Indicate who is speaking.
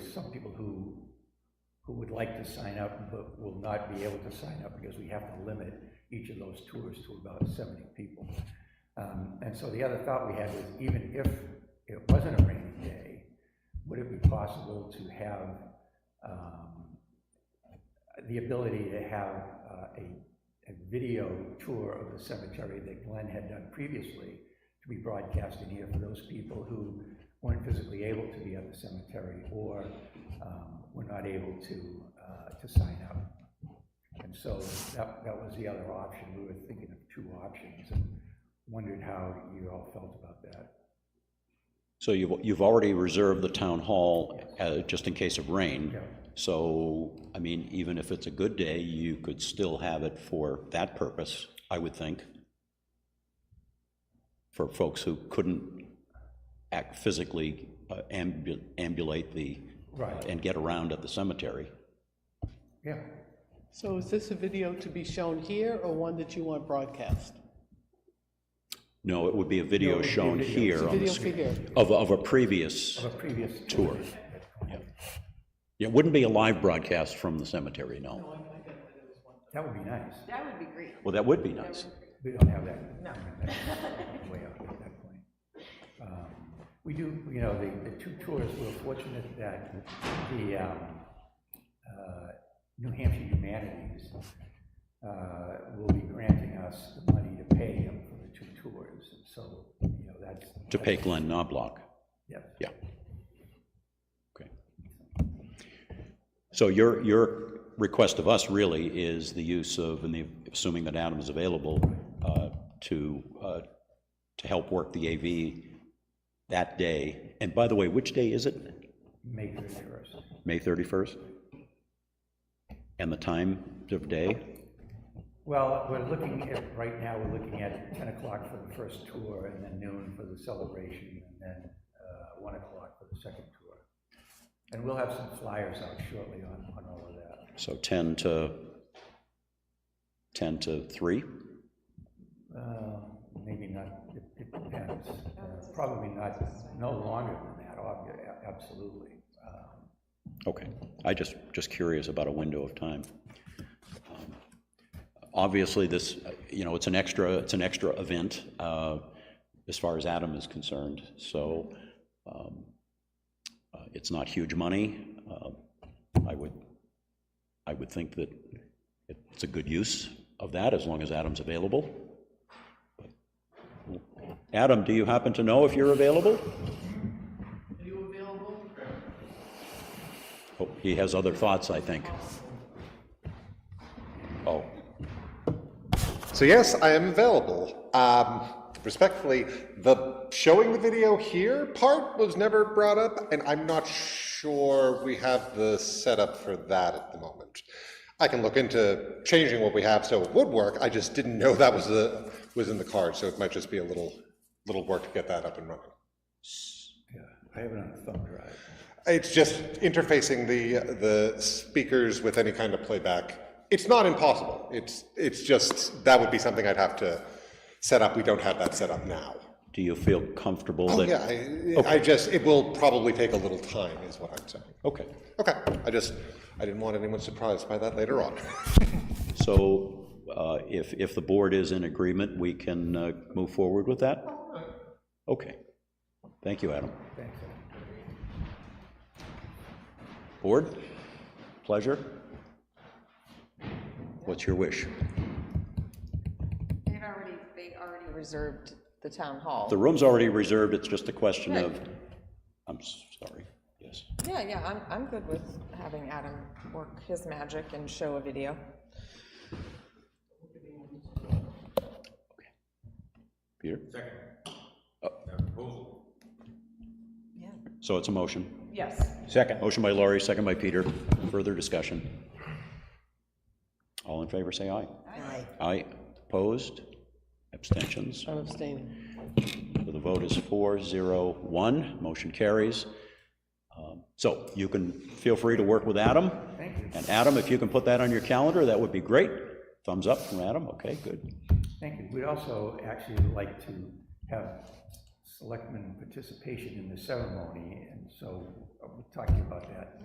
Speaker 1: there's some people who, who would like to sign up, but will not be able to sign up, because we have to limit each of those tours to about seventy people. Um, and so the other thought we had was, even if it wasn't a rainy day, would it be possible to have, um, the ability to have uh, a, a video tour of the cemetery that Glenn had done previously to be broadcasted here for those people who weren't physically able to be at the cemetery or um, were not able to, uh, to sign up. And so that, that was the other option. We were thinking of two options and wondered how you all felt about that.
Speaker 2: So you've, you've already reserved the town hall uh, just in case of rain.
Speaker 1: Yeah.
Speaker 2: So, I mean, even if it's a good day, you could still have it for that purpose, I would think, for folks who couldn't act physically uh, ambu- ambulate the,
Speaker 1: Right.
Speaker 2: and get around at the cemetery.
Speaker 1: Yeah,
Speaker 3: So is this a video to be shown here or one that you want broadcast?
Speaker 2: No, it would be a video
Speaker 1: would be a
Speaker 2: shown
Speaker 1: video.
Speaker 2: here on the
Speaker 3: Video
Speaker 2: s-
Speaker 3: for here.
Speaker 2: of, of a previous,
Speaker 1: of a previous.
Speaker 2: Tour. it wouldn't be a live broadcast from the cemetery, no.
Speaker 1: That would be nice.
Speaker 4: That would be great.
Speaker 2: Well, that would be nice.
Speaker 1: We don't have that. No. Way up at that point. Um, We do, you know, the, the two tours, we're fortunate that the, um, uh, New Hampshire Humanities, uh, will be granting us the money to pay him for the two tours, and so, you know, that's.
Speaker 2: To pay Glenn Knobloch,
Speaker 1: Yes.
Speaker 2: yeah. Okay. So your, your request of us really is the use of, and the, assuming that Adam is available, uh, to, uh, to help work the AV that day. And by the way, which day is it?
Speaker 1: May thirty-first.
Speaker 2: May 31st? And the time of day?
Speaker 1: Well, we're looking at, right now, we're looking at ten o'clock for the first tour, and then noon for the celebration, and then, uh, one o'clock for the second tour. And we'll have some flyers out shortly on, on all of that.
Speaker 2: So 10 to, 10 to 3?
Speaker 1: Uh, Maybe not, it it depends. Uh, Probably not, no longer than that, obvi- a- absolutely. Um,
Speaker 2: Okay, I just, just curious about a window of time. Um, Obviously, this, uh, you know, it's an extra, it's an extra event uh, as far as Adam is concerned, so um, uh, it's not huge money. Uh, I would, I would think that it's a good use of that, as long as Adam's available. Adam, do you happen to know if you're available?
Speaker 3: Are you available?
Speaker 2: Oh, He has other thoughts, I think. Oh,
Speaker 5: So yes, I am available. Um, respectfully, the showing the video here part was never brought up, and I'm not sure we have the setup for that at the moment. I can look into changing what we have so it would work. I just didn't know that was the was in the card, so it might just be a little little work to get that up and running.
Speaker 1: yeah, I have it on a thumb drive.
Speaker 5: It's just interfacing the the speakers with any kind of playback. It's not impossible. It's it's just that would be something I'd have to set up. We don't have that set up now.
Speaker 2: do you feel comfortable that?
Speaker 5: Yeah, I, I just it will probably take a little time, is what I'm saying.
Speaker 2: Okay,
Speaker 5: Okay, I just I didn't want anyone surprised by that later on.
Speaker 2: so uh, if, if the board is in agreement, we can uh, move forward with that? Okay, thank you, Adam.
Speaker 1: Thanks.
Speaker 2: Board, pleasure? What's your wish?
Speaker 4: They've already, they already reserved the town hall.
Speaker 2: The room's already reserved, it's just a question of, I'm s- sorry, yes.
Speaker 4: Yeah, yeah, I'm, I'm good with having Adam work his magic and show a video.
Speaker 2: Peter? Second. So it's a motion?
Speaker 4: Yes.
Speaker 2: Second. Motion by Laurie, second by Peter. Further discussion? All in favor, say aye.
Speaker 4: Aye.
Speaker 2: Aye. Opposed? Abstentions?
Speaker 3: I'm abstaining.
Speaker 2: So the vote is four, zero, one. Motion carries. Um, So you can feel free to work with Adam. Thank you. And Adam, if you can put that on your calendar, that would be great. Thumbs up from Adam. Okay, good.
Speaker 1: Thank you. We'd also actually like to have uh, selectmen participation in the ceremony, and so we're talking about that